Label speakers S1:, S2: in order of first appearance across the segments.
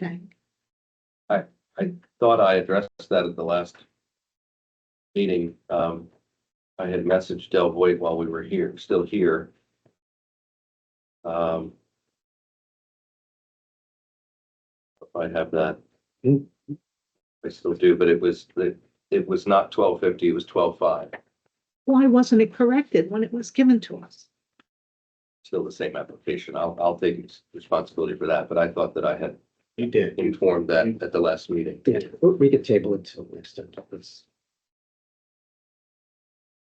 S1: Okay.
S2: thought I addressed that at the last meeting. Um, I had messaged Del Voight while we were here, still here. Um, if I have that. I still do, but it was, it, it was not twelve fifty, it was twelve five,
S1: Why wasn't it corrected when it was given to us?
S2: still the same application. I'll, I'll take responsibility for that, but I thought that I had
S3: You did.
S2: informed that at the last meeting.
S3: Yeah, we- we could table it till next time. Let's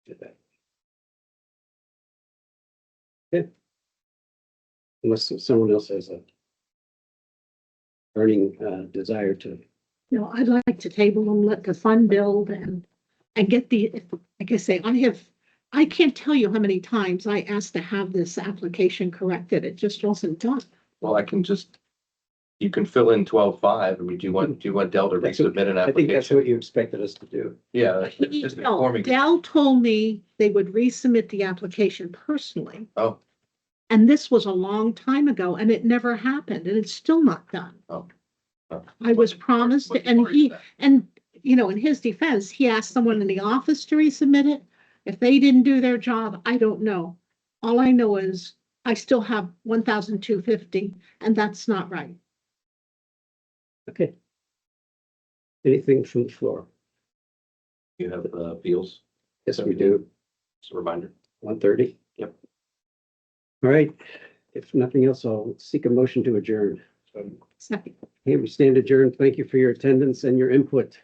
S3: do that. Okay. Unless someone else has a burning uh, desire to,
S1: You know, I'd like to table them, let the fund build and, and get the, like I say, I have, I can't tell you how many times I asked to have this application corrected. It just wasn't done.
S2: Well, I can just, you can fill in twelve five, I mean, do you want, do you want Dell to
S3: That's what-
S2: resubmit an
S3: I think that's what
S2: application?
S3: you expected us to do.
S2: Yeah,
S1: He-
S2: Uh, just
S1: No,
S2: informing,
S1: Dell told me they would resubmit the application personally.
S2: oh,
S1: And this was a long time ago and it never happened and it's still not done.
S2: Oh. Oh.
S1: I was promised
S2: What-
S1: and
S2: what
S1: he,
S2: is that?
S1: and, you know, in his defense, he asked someone in the office to resubmit it. If they didn't do their job, I don't know. All I know is I still have one thousand two fifty and that's not right.
S3: Okay. Anything from the floor?
S2: You have uh, appeals,
S3: Yes, we do.
S2: just a reminder.
S3: One thirty?
S2: Yep.
S3: All right. If nothing else, I'll seek a motion to adjourn.
S1: Second.
S3: Hey, we stand adjourned. Thank you for your attendance and your input.